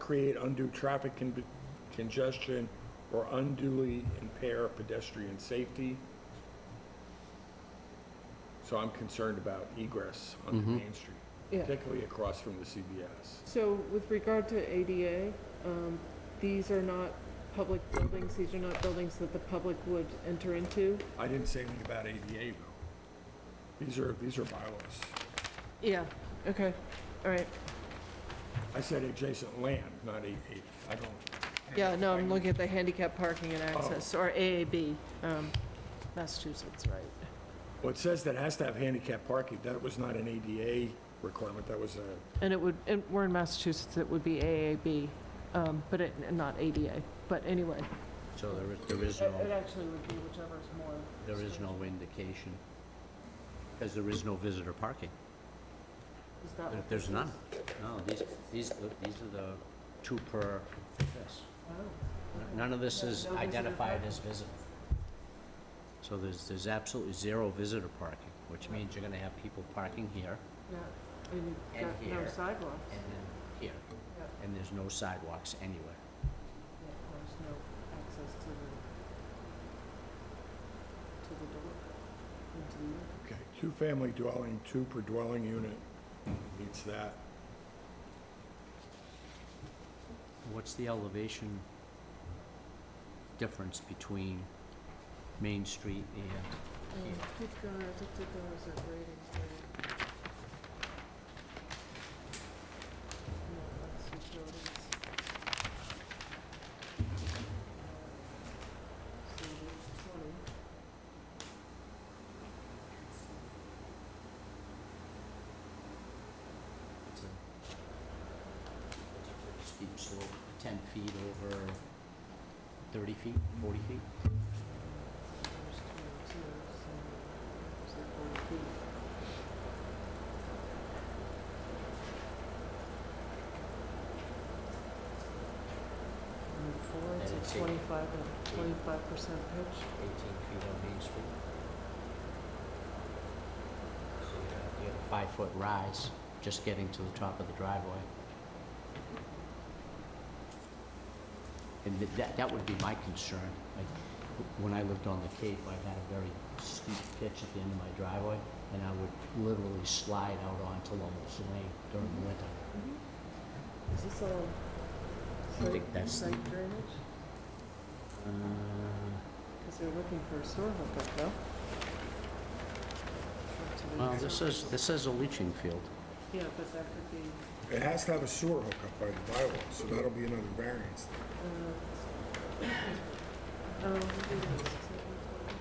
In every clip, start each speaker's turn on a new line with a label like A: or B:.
A: create undue traffic con- congestion or unduly impair pedestrian safety. So I'm concerned about egress on Main Street,
B: Yeah.
A: particularly across from the CBS.
B: So with regard to ADA, um, these are not public buildings, these are not buildings that the public would enter into?
A: I didn't say anything about ADA though. These are, these are bylaws.
B: Yeah. Okay, all right.
A: I said adjacent land, not ADA. I don't,
B: Yeah, no, I'm looking at the handicap parking and
C: Oh.
B: access, or AAB, um, Massachusetts, right?
A: well, it says that it has to have handicap parking. That was not an ADA requirement, that was a,
B: And it would, and we're in Massachusetts, it would be AAB, um, but it, not ADA, but anyway.
C: So there is, there is no,
B: actually would be whichever is more.
C: there is no indication, because there is no visitor parking.
B: Is that
C: There-
B: what
C: There's
B: this
C: none.
B: is?
C: No, these, these, these are the two per this.
B: Oh,
C: None of this is
B: No visitor
C: identified
B: parking.
C: as visitor. So there's, there's absolutely zero visitor parking, which means you're gonna have people parking here
B: Yeah, and you've
C: And
B: got no
C: here.
B: sidewalks.
C: and then here,
B: Yep.
C: and there's no sidewalks anywhere.
B: Yeah, there's no access to the, to the door, into the unit.
A: okay. Two-family dwelling, two per dwelling unit meets that.
C: What's the elevation difference between Main Street and,
B: Um, Keep going, I think keep going, is that grading? No, that's utilities. Uh, So there's twenty.
C: it's a, it's a pretty steep slope, ten feet over thirty feet, forty feet?
B: There's twenty-two, so, so forty feet. And four,
C: And
B: it's
C: it's
B: a
C: eight.
B: twenty-five, and twenty-five percent pitch.
C: Eighteen feet on Main Street. So you have- you have a five-foot rise, just getting to the top of the driveway. And th- that, that would be my concern, like, when I lived on the Cape, I had a very steep pitch at the end of my driveway, and I would literally slide out onto Lomel's Lane during the winter.
B: Is this all
C: I think
B: site,
C: that's-
B: site drainage?
C: Uh,
B: Because they're looking for a sewer hookup, though. Up to the-
C: Well, this is, this is a leaching field.
B: Yeah, but that could be,
A: It has to have a sewer hookup by the bylaw, so that'll be another variance.
B: uh, oh, maybe that's exactly what it is.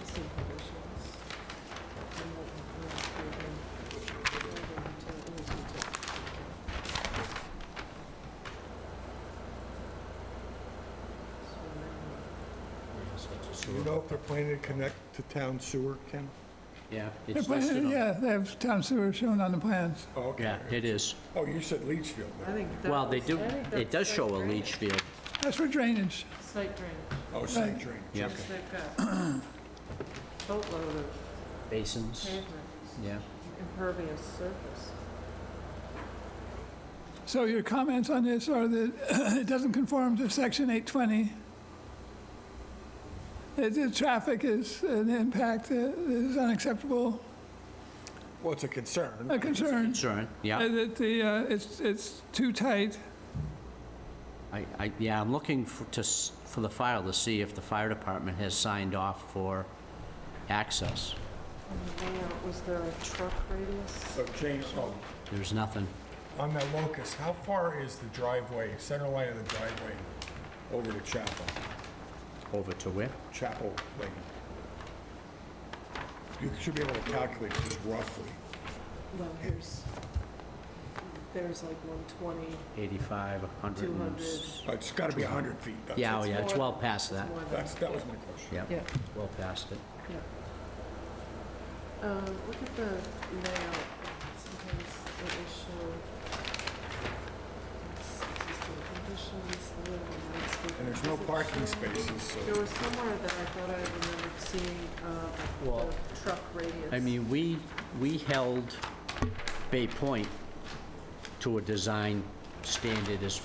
B: Existing conditions. And what we're approving, building util- it was util- So, now,
C: Yes, it's a
A: Do you
C: sewer.
A: know if they're planning to connect to town sewer, Ken?
C: Yeah,
D: They're
C: it's
D: pla-
C: listed on.
D: Yeah, they have town sewer shown on the plans.
A: Oh, okay.
C: Yeah, it is.
A: Oh, you said Leachfield. though.
B: I think that
C: Well, they
B: was-
C: do,
B: I think
C: it
B: that's
C: does
B: site
C: show a
B: drainage.
C: leach field.
D: That's for drainage.
B: Site drainage.
A: Oh, site drainage.
C: Yeah.
B: Because they've got boatload of
C: Basins,
B: pavement,
C: yeah.
B: impervious surface.
D: So your comments on this are that it doesn't conform to section 820. It- The traffic is an impact that is unacceptable,
A: Well, it's a concern.
D: a concern.
C: Concern,
D: Uh,
C: yeah.
D: That the, uh, it's, it's too tight.
C: I, I, yeah, I'm looking for, to, s- for the file to see if the fire department has signed off for access.
B: On the layout, was there a truck radius?
A: So change, oh,
C: There's nothing.
A: on that locus, how far is the driveway, center line of the driveway over to Chapel,
C: Over to where?
A: Chapel Lane? You should be able to calculate just roughly.
B: Well, here's, there's like 120,
C: 85, 100 and
B: 200.
C: s-
A: Uh, It's gotta be 100 feet. That's-
C: Yeah, oh
B: It's
C: yeah, it's
B: more-
C: well past that.
B: more than,
A: That's, that was my question.
C: Yeah,
B: yeah,
C: it's well past it.
B: yeah. Um, Look at the layout, sometimes it will show it's existing conditions, the layout of landscape.
A: And there's no
B: Does it
A: parking
B: show-
A: spaces,
B: There
A: so
B: was somewhere that I thought I remembered seeing um,
C: Well,
B: the truck radius.
C: I mean, we, we held Bay Point to a design standard as